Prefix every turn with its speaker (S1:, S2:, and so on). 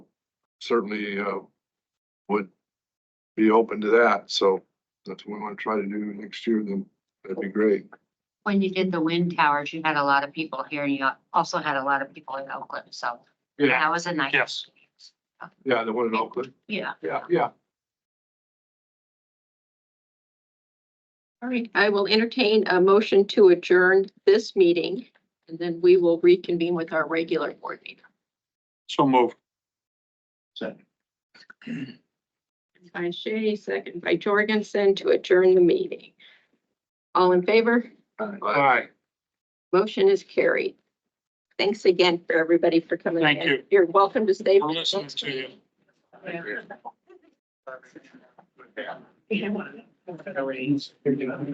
S1: certainly, uh, would be open to that. So that's what we want to try to do next year, then that'd be great.
S2: When you did the wind towers, you had a lot of people here and you also had a lot of people in Oakland, so
S1: Yeah,
S2: that was a nice.
S3: Yes.
S1: yeah, the one in Oakland.
S2: Yeah.
S1: Yeah, yeah.
S4: All right, I will entertain a motion to adjourn this meeting, and then we will reconvene with our regular board meeting.
S3: So moved.
S4: By Shay, second by Jorgensen to adjourn the meeting. All in favor?
S1: All
S3: right.
S4: Motion is carried. Thanks again for everybody for coming.
S3: Thank
S4: in.
S3: you.
S4: You're welcome to stay.
S3: We're listening to you.
S2: Yeah.